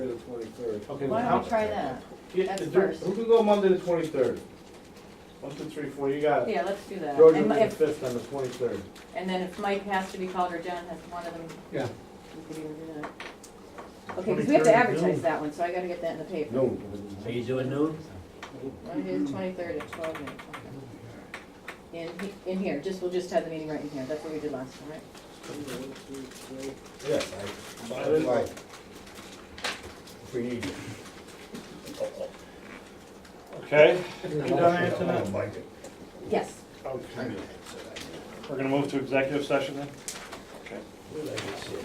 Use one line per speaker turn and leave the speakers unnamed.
twenty-third.
Okay,
Why
how-
don't we try that?
Yeah,
That's
do-
first.
Who can go Monday the twenty-third? One, two, three, four, you got it.
Yeah, let's do that.
George
And
will be the
if-
fifth on the twenty-third.
And then if Mike has to be called or John has one of them.
Yeah.
we could even do that. Okay, because we have to
23rd at
advertise
noon.
that one, so I gotta get that in the paper.
No.
Are you doing noon?
Monday the twenty-third at twelve noon, okay. In, he- in here, just, we'll just have the meeting right in here, that's what we did last time, right?
Yeah.
I didn't-
Right. If we need.
Okay,
You done answering that?
Yes.
okay. We're gonna move to executive session then?